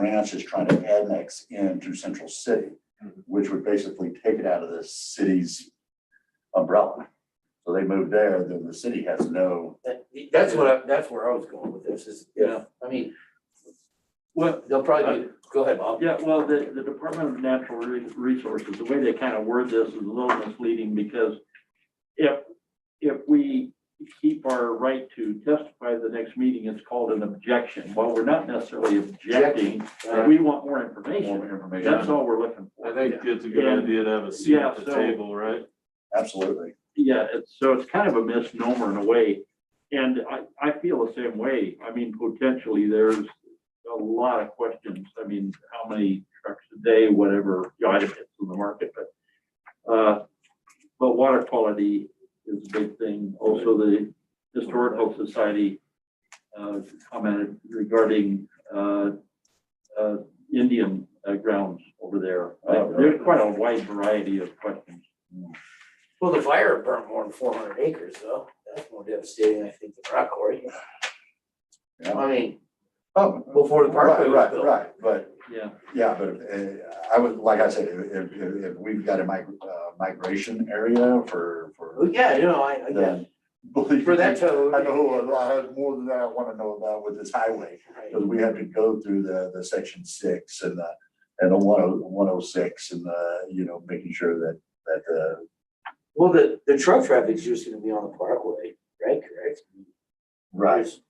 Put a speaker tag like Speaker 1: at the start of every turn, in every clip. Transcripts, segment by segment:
Speaker 1: Ranch is trying to annex into Central City,
Speaker 2: Mm-hmm.
Speaker 1: which would basically take it out of the city's umbrella. So they move there, then the city has no,
Speaker 2: That, that's what I, that's where I was going with this, is, you know, I mean,
Speaker 3: Well,
Speaker 2: they'll probably, be- go ahead, Bob.
Speaker 3: yeah, well, the, the Department of Natural Re- Resources, the way they kind of word this is a little misleading because if, if we keep our right to testify at the next meeting, it's called an objection. While we're not necessarily objecting, we want more
Speaker 4: More
Speaker 3: information. That's
Speaker 4: information.
Speaker 3: all we're looking
Speaker 4: I
Speaker 3: for.
Speaker 4: think it's a good
Speaker 3: Yeah.
Speaker 4: idea to have a seat
Speaker 3: Yeah,
Speaker 4: at the
Speaker 3: so-
Speaker 4: table, right?
Speaker 1: absolutely.
Speaker 3: Yeah, it's, so it's kind of a misnomer in a way. And I, I feel the same way. I mean, potentially there's a lot of questions. I mean, how many trucks a day, whatever, you know, I don't get from the market, but, uh, but water quality is a big thing. Also, the Historical Society, uh, commented regarding, uh, uh, Indian uh, grounds over there. Uh,
Speaker 1: Oh, really?
Speaker 3: There's quite a wide variety of questions.
Speaker 2: Well, the fire burned more than four hundred acres, though, that's more devastating, I think, than rock quarry.
Speaker 1: Yeah.
Speaker 2: I mean,
Speaker 1: Oh,
Speaker 2: before the parkway
Speaker 1: right,
Speaker 2: was
Speaker 1: right,
Speaker 2: built.
Speaker 1: Right, but
Speaker 3: Yeah.
Speaker 1: Yeah, but uh, I would, like I said, if, if, if we've got a mig- uh, migration area for,
Speaker 2: Well,
Speaker 1: for.
Speaker 2: Yeah, you know, I, I guess,
Speaker 1: then believe
Speaker 2: for that
Speaker 1: me,
Speaker 2: toad.
Speaker 1: I know, a lot- I have more than that I want to know about with this highway,
Speaker 2: Right.
Speaker 1: because we had to go through the, the section six and the, and the one oh, one oh six and the, you know, making sure that, that uh, the.
Speaker 2: Well, the, the truck traffic's just gonna be on the parkway, right, correct? There's-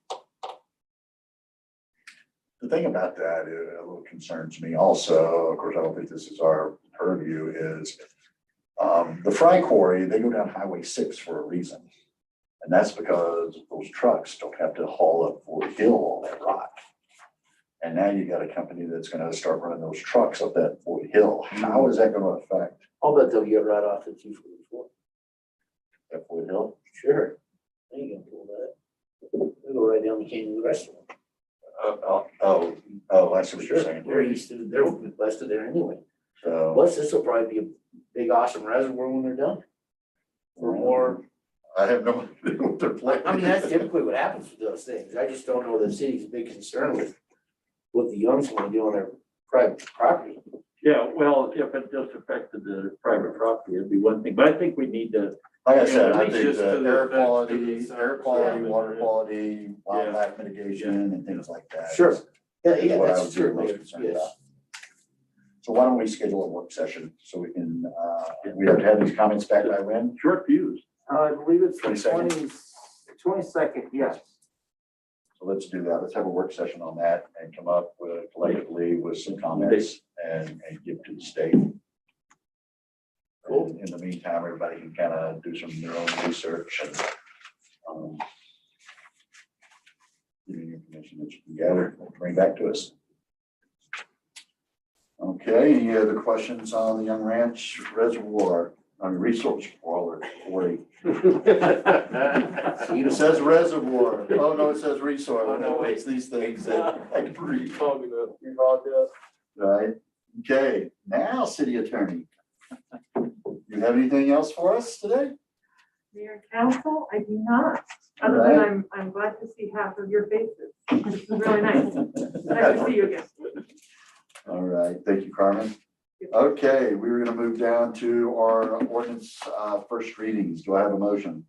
Speaker 1: The thing about that, it a little concerns me also, of course, I don't think this is our purview, is um, the fry quarry, they go down Highway six for a reason. And that's because those trucks don't have to haul up Fort Hill all that rock. And now you got a company that's gonna start running those trucks up that Fort Hill. How is that gonna affect
Speaker 2: I'll bet they'll get right off the two forty-four.
Speaker 1: that Fort Hill?
Speaker 2: Sure. I ain't gonna pull that. They go right down the canyon to the restaurant.
Speaker 1: Oh, oh, oh, I see what you're saying.
Speaker 2: They're east of, they're west of there anyway.
Speaker 1: So,
Speaker 2: Plus, this will probably be a big awesome reservoir when they're done. Or more,
Speaker 1: I have no idea what they're planning.
Speaker 2: I mean, that's typically what happens with those things. I just don't know the city's big concern with what the youngs wanna do on their private property.
Speaker 3: Yeah, well, if it just affected the private property, it'd be one thing, but I think we need to,
Speaker 1: Like I said, I
Speaker 4: Yeah,
Speaker 1: think
Speaker 4: just to
Speaker 1: the
Speaker 4: the
Speaker 1: air
Speaker 4: effects of the
Speaker 1: quality,
Speaker 4: sound
Speaker 1: air quality,
Speaker 4: environment,
Speaker 1: water
Speaker 4: yeah.
Speaker 1: quality, wildlife mitigation and things like that.
Speaker 2: Sure. Yeah,
Speaker 1: That's
Speaker 2: yeah,
Speaker 1: what I
Speaker 2: that's
Speaker 1: was really
Speaker 2: true,
Speaker 1: most
Speaker 2: Mayor.
Speaker 1: concerned about.
Speaker 2: yes.
Speaker 1: So why don't we schedule a work session so we can, uh, we have to have these comments back by when?
Speaker 3: short views.
Speaker 5: Uh, I believe it's the
Speaker 1: 22nd.
Speaker 5: twenty, twenty-second, yes.
Speaker 1: So let's do that. Let's have a work session on that and come up with collectively with some comments and, and give to the state.
Speaker 2: Cool.
Speaker 1: And In the meantime, everybody can kind of do some of their own research and, um, give you the information that you can gather, bring back to us. Okay, any other questions on the Young Ranch Reservoir, on Resource Boiler Forty? It says reservoir. Oh, no, it says resource.
Speaker 4: Oh, no, wait.
Speaker 1: It's these things that I can read.
Speaker 4: Talking about-
Speaker 1: Right, okay, now, city attorney. You have anything else for us today?
Speaker 6: Mayor and council, I do not, other than
Speaker 1: Right.
Speaker 6: I'm, I'm glad to see half of your faces. This is really nice. Nice to see you again.
Speaker 1: All right, thank you, Carmen. Okay, we were gonna move down to our ordinance, uh, first readings. Do I have a motion?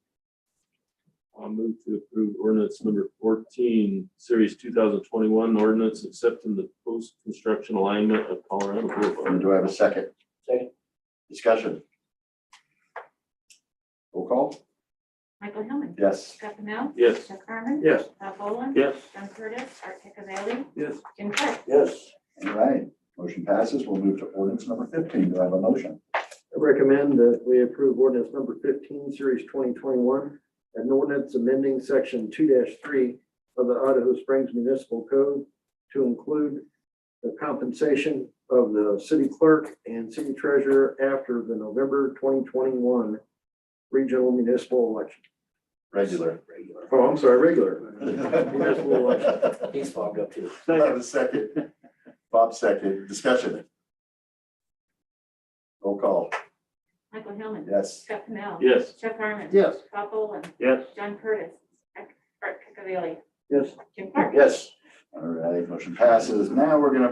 Speaker 4: I'll move to approve ordinance number fourteen, series two thousand twenty-one, ordinance accepting the post-construction alignment of Colorado
Speaker 1: And
Speaker 4: Boulevard.
Speaker 1: do I have a second?
Speaker 2: Second.
Speaker 1: Discussion? Roll call?
Speaker 7: Michael Hillman.
Speaker 1: Yes.
Speaker 7: Scott Pennell.
Speaker 4: Yes.
Speaker 7: Jeff Harmon.
Speaker 3: Yes.
Speaker 7: Bob Boland.
Speaker 3: Yes.
Speaker 7: John Curtis. Art Picavalli.
Speaker 4: Yes.
Speaker 7: Jim Clark.
Speaker 2: Yes,
Speaker 1: All right, motion passes. We'll move to ordinance number fifteen. Do I have a motion?
Speaker 5: I recommend that we approve ordinance number fifteen, series twenty twenty-one, an ordinance amending section two three of the Idaho Springs Municipal Code to include the compensation of the city clerk and city treasurer after the November twenty twenty-one regional municipal election.
Speaker 1: Regular.
Speaker 5: Oh, I'm sorry, regular. Municipal election.
Speaker 1: Have
Speaker 2: he's fogged up too.
Speaker 1: a second. Bob second. Discussion? Roll call.
Speaker 7: Michael Hillman.
Speaker 1: Yes.
Speaker 7: Scott Pennell.
Speaker 4: Yes.
Speaker 7: Jeff Harmon.
Speaker 5: Yes.
Speaker 7: Bob Boland.
Speaker 3: Yes.
Speaker 7: John Curtis. Art Picavalli.
Speaker 5: Yes.
Speaker 7: Jim Clark.
Speaker 2: Yes.
Speaker 1: All right, motion passes. Now we're gonna